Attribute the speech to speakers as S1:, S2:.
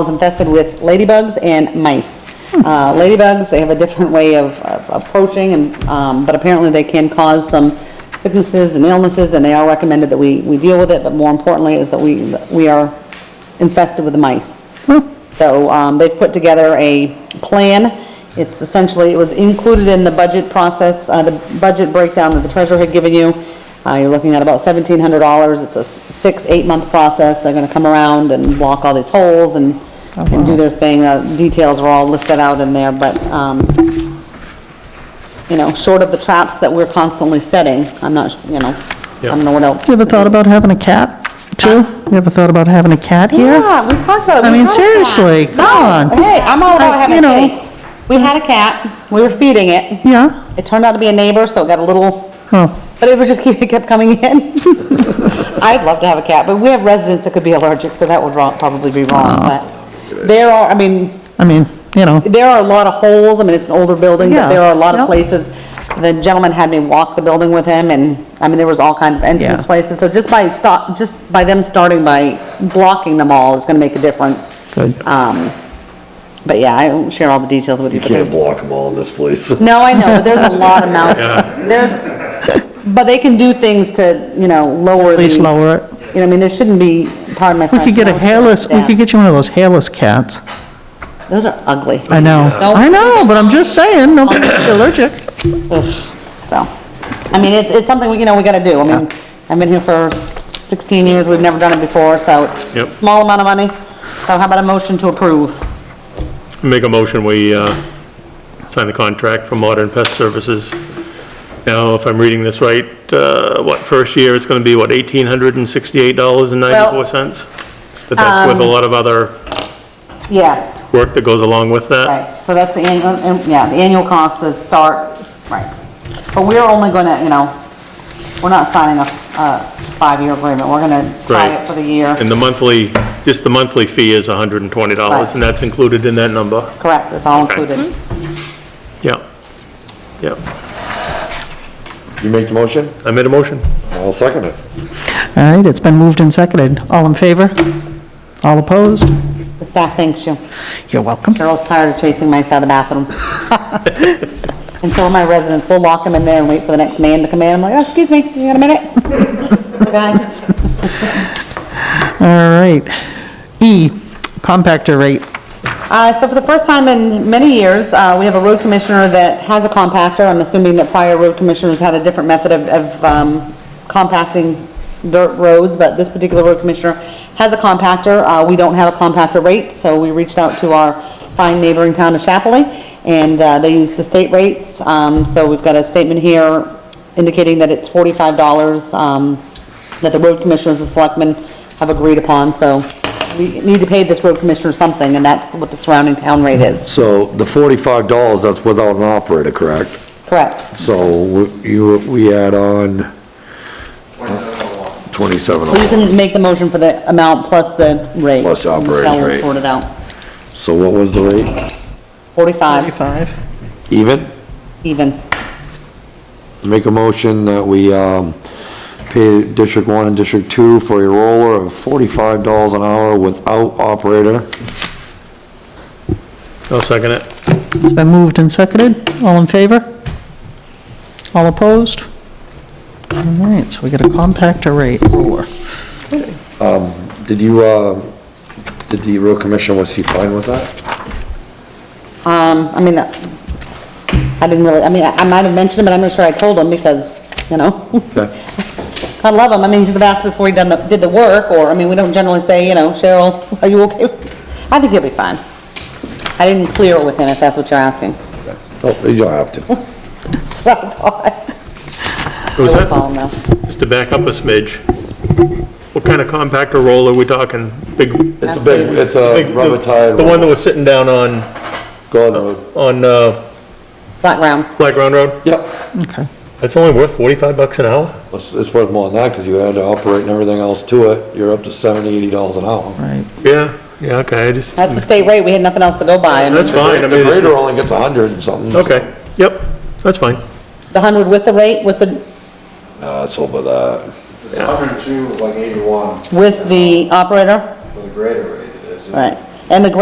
S1: is infested with ladybugs and mice. Uh, Ladybugs, they have a different way of of approaching, and, um, but apparently they can cause some sicknesses and illnesses, and they are recommended that we, we deal with it, but more importantly is that we, we are infested with the mice. So um, they've put together a plan. It's essentially, it was included in the budget process, uh, the budget breakdown that the treasurer had given you. Uh, You're looking at about $1,700. It's a s- six, eight-month process. They're going to come around and block all these holes and
S2: Oh,
S1: and do their thing. Uh, Details are all listed out in there, but, um, you know, short of the traps that we're constantly setting, I'm not, s- you know, I don't know what else.
S2: You ever thought about having a cat, too? You ever thought about having a cat here?
S1: Yeah, we talked about it.
S2: I
S1: We
S2: mean,
S1: had a cat.
S2: seriously, come
S1: No,
S2: on.
S1: Hey, I'm all about
S2: I-
S1: having a
S2: you know.
S1: kitty. We had a cat, we were feeding it.
S2: Yeah?
S1: It turned out to be a neighbor, so it got a little,
S2: Oh,
S1: but it was just, keep- it kept coming in. I'd love to have a cat, but we have residents that could be allergic, so that would wrong- probably be wrong,
S2: Ah.
S1: but there are, I mean,
S2: I mean, you know,
S1: there are a lot of holes, I mean, it's an older building, but
S2: Yeah,
S1: there are a lot of
S2: yep.
S1: places. The gentleman had me walk the building with him, and, I mean, there was all kinds of entrance
S2: Yeah.
S1: places, so just by stop, just by them starting by blocking them all is gonna make a difference.
S2: good.
S1: Um, but yeah, I won't share all the details with you.
S3: You
S1: but
S3: can't
S1: there's-
S3: block them all in this place.
S1: No, I know, but there's a lot of mouth, there's, but they can do things to, you know, lower the.
S2: At least lower it.
S1: You know, I mean, there shouldn't be, pardon my
S2: We
S1: French.
S2: could get a
S1: no,
S2: hairless, we
S1: yeah.
S2: could get you one of those hairless cats.
S1: Those are ugly,
S2: I know.
S1: No.
S2: I know, but I'm just saying, nobody could be allergic.
S1: so, I mean, it's, it's something, you know, we gotta do, I mean, I've been here for sixteen years, we've never done it before, so it's.
S4: Yep.
S1: Small amount of money, so how about a motion to approve?
S4: Make a motion, we uh, sign the contract for Modern Pest Services. Now, if I'm reading this right, uh, what, first year, it's going to be, what, $1,868.94? But that's
S1: um,
S4: with a lot of other
S1: Yes,
S4: work that goes along with that?
S1: right, so that's the annual, and- yeah, the annual cost, the start, right. But we're only gonna, you know, we're not signing a, a five-year agreement, we're gonna try
S4: Right.
S1: it for the year.
S4: And the monthly, just the monthly fee is $120, and that's included in that number?
S1: Correct, it's all included.
S4: Yeah. Yeah.
S3: You make the motion?
S4: I made a motion.
S3: I'll second it.
S2: All right, it's been moved and seconded. All in favor? All opposed?
S1: The staff thanks you.
S2: You're welcome.
S1: Cheryl's tired of chasing mice out of the bathroom. And so are my residents, we'll lock them in there and wait for the next man to come in, I'm like, "Oh, excuse me, you got a minute? Guy, just-
S2: All right. E, compactor rate.
S1: Uh, So for the first time in many years, uh, we have a road commissioner that has a compactor. I'm assuming that prior road commissioners had a different method of- of um, compacting dirt roads, but this particular road commissioner has a compactor. Uh, We don't have a compactor rate, so we reached out to our fine neighboring town of Chapley, and uh, they use the state rates. Um, So we've got a statement here indicating that it's $45 um, that the road commissioners and selectmen have agreed upon, so we need to pay this road commissioner something, and that's what the surrounding town rate is.
S3: So the forty-five dollars, that's without an operator, correct?
S1: Correct.
S3: So we- you, we add on twenty-seven. oh
S1: So you can make the motion for the amount plus the rate.
S3: Plus the operating
S1: Michelle will
S3: rate.
S1: sort it out.
S3: So what was the rate?
S1: 45
S2: 45.
S3: Even?
S1: even.
S3: Make a motion that we, um, pay District One and District Two for a roller of forty-five dollars an hour without operator.
S4: I'll second it.
S2: It's been moved and seconded. All in favor? All opposed? All right, so we got a compactor rate roller.
S3: Did you, uh, did the road commissioner, was he fine with that?
S1: Um, I mean, that- I didn't really, I mean, I I might have mentioned it, but I'm not sure I told him because, you know,
S3: Okay.
S1: I love him. I mean, he should have asked before he done the, did the work, or, I mean, we don't generally say, you know, Cheryl, are you okay? I think he'll be fine. I didn't clear it with him, if that's what you're asking.
S3: Oh, you don't have to.
S1: That's what I thought.
S4: Was
S1: I will
S4: that,
S1: call him now.
S4: just to back up a smidge, what kind of compactor roll are we talking? Big,
S3: It's a big, it's a
S4: Big-
S3: rubber tire.
S4: The one that was sitting down on,
S3: Go on.
S4: on uh,
S1: Flat ground.
S4: Black Ground Road,
S3: Yep,
S2: Okay.
S4: that's only worth 45 bucks an hour?
S3: it's, it's worth more than that, because you add to operate and everything else to it, you're up to seventy, eighty dollars an hour.
S2: Right.
S4: Yeah, yeah, okay, I just,
S1: That's the state rate, we had nothing else to go by. I mean,
S4: that's fine, I
S3: The
S4: mean,
S3: grader
S4: it's-
S3: only gets a hundred and something.
S4: okay, yep, that's fine.
S1: The hundred with the rate, with the,
S3: Uh, it's over that.
S5: The 102 was like 81
S1: with the operator,
S5: for the greater rate it is.
S1: right. And the